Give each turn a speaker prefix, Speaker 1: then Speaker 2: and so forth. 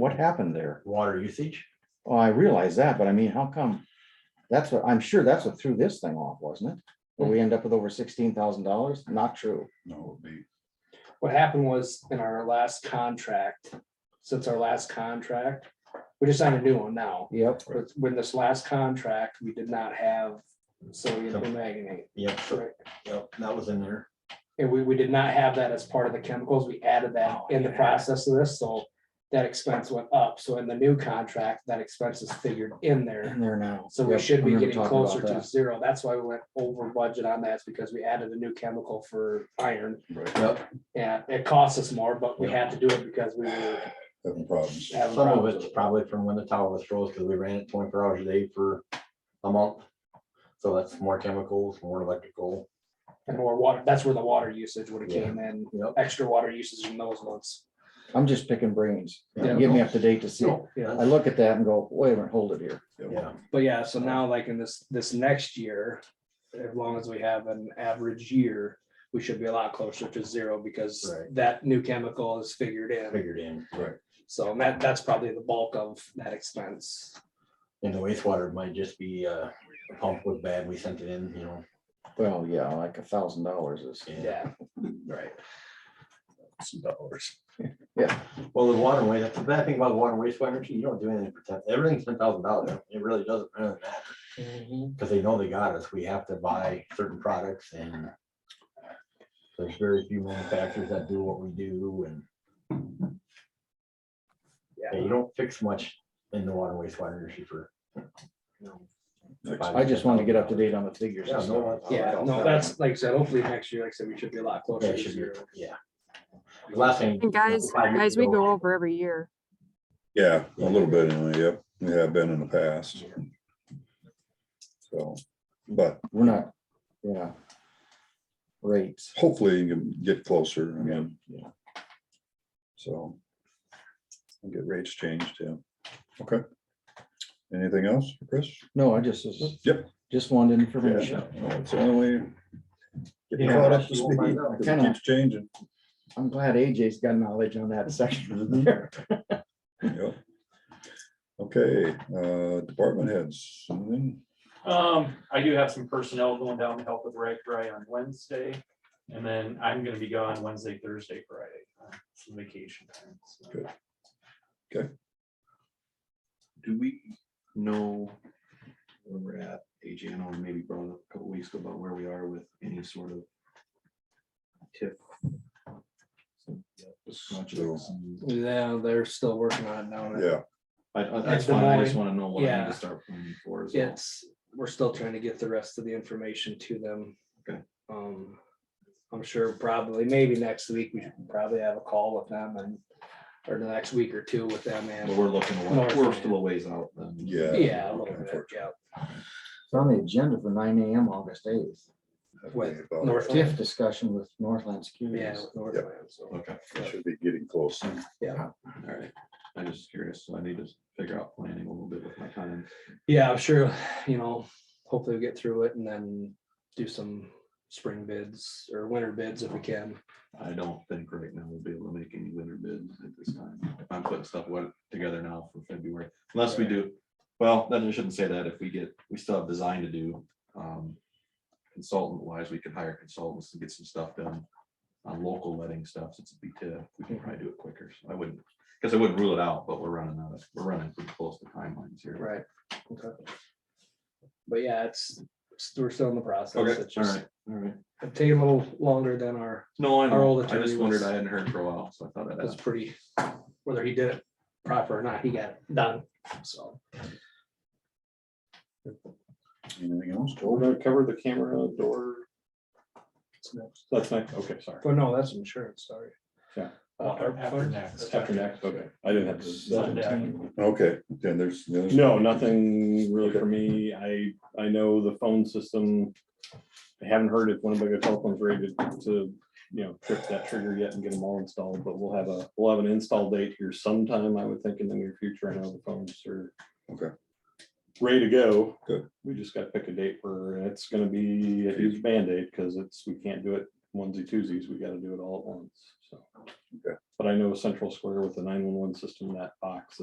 Speaker 1: What happened there?
Speaker 2: water usage.
Speaker 1: Oh, I realize that, but I mean, how come? That's what, I'm sure that's what threw this thing off, wasn't it? But we end up with over sixteen thousand dollars? Not true.
Speaker 3: No, it'd be,
Speaker 4: what happened was in our last contract, since our last contract, we just signed a new one now.
Speaker 1: Yep.
Speaker 4: But when this last contract, we did not have sodium
Speaker 2: Some-
Speaker 4: permanganate.
Speaker 2: Yep, so- yep, that was in there.
Speaker 4: And we, we did not have that as part of the chemicals. We added
Speaker 1: Oh,
Speaker 4: that in the process of this, so that expense went up. So in the new contract, that expense is figured in there.
Speaker 1: In there now.
Speaker 4: So we
Speaker 1: Yep, I
Speaker 4: should be
Speaker 1: remember
Speaker 4: getting
Speaker 1: talking about
Speaker 4: closer to
Speaker 1: that.
Speaker 4: zero. That's why we went over budget on that, is because we added a new chemical for iron.
Speaker 3: right,
Speaker 2: Yep,
Speaker 4: And it cost us more, but we had to do it because we were
Speaker 3: having problems.
Speaker 4: having
Speaker 2: some of
Speaker 4: problems.
Speaker 2: it's
Speaker 4: with it.
Speaker 2: probably from when the tower was froze, because we ran it twenty-four hours a day for a month. So that's more chemicals, more electrical.
Speaker 4: And more water, that's where the water usage would have came in,
Speaker 2: Yep.
Speaker 4: extra water usage in those months.
Speaker 1: I'm just picking brains.
Speaker 2: Yeah.
Speaker 1: Give me up to date to see.
Speaker 2: No,
Speaker 4: Yeah.
Speaker 1: I look at that and go, wait a minute, hold it here.
Speaker 2: Yeah,
Speaker 4: But yeah, so now like in this, this next year, as long as we have an average year, we should be a lot closer to zero because
Speaker 2: Right.
Speaker 4: that new chemical is figured in.
Speaker 2: figured in.
Speaker 4: So that, that's probably the bulk of that expense.
Speaker 2: And the wastewater might just be, uh, the pump was bad, we sent it in, you know.
Speaker 1: Well, yeah, like a thousand dollars is.
Speaker 4: Yeah,
Speaker 2: right.
Speaker 3: Some dollars.
Speaker 2: Well, the water waste, that's the bad thing about water and wastewater, you don't do anything for ten, everything's ten thousand dollars. It really doesn't, really matter.
Speaker 4: Mm-hmm.
Speaker 2: Because they know they got us, we have to buy certain products and. There's very few manufacturers that do what we do and yeah,
Speaker 4: yeah.
Speaker 2: you don't fix much in the water wastewater issue for.
Speaker 1: I just wanted to get up to date on the figures. and
Speaker 2: Yeah, no,
Speaker 1: stuff.
Speaker 4: Yeah, no, that's like I said, hopefully next year, like I said, we should be a lot
Speaker 2: Yeah,
Speaker 4: closer
Speaker 2: it
Speaker 4: to
Speaker 2: should be,
Speaker 4: zero.
Speaker 2: yeah. The Last thing.
Speaker 5: And guys,
Speaker 2: five years
Speaker 5: guys, we
Speaker 2: ago-
Speaker 5: go over every year.
Speaker 3: Yeah, a little bit, anyway, yep, we have been in the past. So, but
Speaker 1: We're not, yeah. Rates.
Speaker 3: hopefully you can get closer, I mean,
Speaker 1: Yeah.
Speaker 3: so. and Get rates changed, yeah, okay. Anything else, Chris?
Speaker 1: No, I just, this is-
Speaker 3: Yep.
Speaker 1: just wanted
Speaker 3: Yeah,
Speaker 1: information.
Speaker 3: no, It's the only way. Get
Speaker 2: Yeah.
Speaker 3: caught up to
Speaker 2: You won't
Speaker 3: speed,
Speaker 2: find out.
Speaker 3: 'cause it
Speaker 1: Kinda.
Speaker 3: keeps changing.
Speaker 1: I'm glad AJ's got knowledge on that
Speaker 4: Mhm.
Speaker 1: section there.
Speaker 3: Yep. Okay, uh, department heads, anything?
Speaker 6: Um, I do have some personnel going down to help with rag dry on Wednesday, and then I'm gonna be gone Wednesday, Thursday, Friday, uh, some vacation time. so.
Speaker 3: Good.
Speaker 7: do we know where we're at? AJ, I know we maybe brought it up a couple weeks ago about where we are with any sort of tip. Projects.
Speaker 4: Yeah, they're still working on it now.
Speaker 3: Yeah,
Speaker 7: I, I- that's
Speaker 4: the
Speaker 7: fine. I just
Speaker 4: moment,
Speaker 7: wanna know what I need
Speaker 4: yeah.
Speaker 7: to start planning for. as well.
Speaker 4: It's, we're still trying to get the rest of the information to them.
Speaker 7: Okay.
Speaker 4: Um, I'm sure probably, maybe next week, we should probably have a call with them and, or the next week or two with them
Speaker 7: But
Speaker 4: and,
Speaker 7: we're looking, a
Speaker 4: North
Speaker 7: wa- we're
Speaker 4: end.
Speaker 7: still a ways out then.
Speaker 3: yeah.
Speaker 4: yeah, a little bit, yeah.
Speaker 1: It's on the agenda for nine AM, August eighth.
Speaker 3: That'd be
Speaker 4: With
Speaker 3: about-
Speaker 4: Northland,
Speaker 1: Fifth discussion with Northland
Speaker 4: yeah,
Speaker 1: Securities.
Speaker 4: with Northland, so.
Speaker 7: Okay,
Speaker 3: we Should be getting close.
Speaker 7: all right. I'm just curious, so I need to figure out planning a little bit with my time.
Speaker 4: Yeah, I'm sure, you know, hopefully we get through it and then do some spring bids or winter bids if we can.
Speaker 7: I don't think right now we'll be able to make any winter bids at this time. If I'm putting stuff what- together now for February, unless we
Speaker 4: Right.
Speaker 7: do, well, then I shouldn't say that. If we get, we still have design to do. um, Consultant wise, we could hire consultants to get some stuff done on local letting stuff since it'd be TIF. We can probably do it quicker. So I wouldn't, because I wouldn't rule it out, but we're running out of, we're running pretty close to timelines here.
Speaker 4: Right. But yeah, it's, it's- we're still in the process.
Speaker 7: Okay,
Speaker 4: It's
Speaker 7: all
Speaker 4: just
Speaker 7: right, all right.
Speaker 4: It's taking a little longer than our,
Speaker 7: No, I
Speaker 4: Our old
Speaker 7: know. I
Speaker 4: attorney
Speaker 7: just wondered,
Speaker 4: was-
Speaker 7: I hadn't heard for a while, so I thought I'd
Speaker 4: that's
Speaker 7: ask.
Speaker 4: pretty, whether he did it proper or not, he got it done, so.
Speaker 3: Anything else?
Speaker 6: cover the camera door.
Speaker 8: That's next, okay, sorry.
Speaker 4: But no, that's insurance, sorry.
Speaker 8: Yeah.
Speaker 4: Uh, our-
Speaker 6: After next.
Speaker 8: After next, okay. I didn't have
Speaker 6: Sunday.
Speaker 8: to.
Speaker 3: Okay, then there's. there's-
Speaker 8: No, nothing really for me. I, I know the phone system. I haven't heard if one of the telephones ready to- to, you know, trip that trigger yet and get them all installed, but we'll have a, we'll have an install date here sometime, I would think, in the near future. I know the phones are.
Speaker 3: Okay.
Speaker 8: Ready to go.
Speaker 3: Good.
Speaker 8: We just gotta pick a date where it's gonna be a huge Band-Aid, because it's, we can't do it onesie twosies. We gotta do it all at once, so.
Speaker 3: Okay.
Speaker 8: But I know Central Square with the nine-one-one system, that box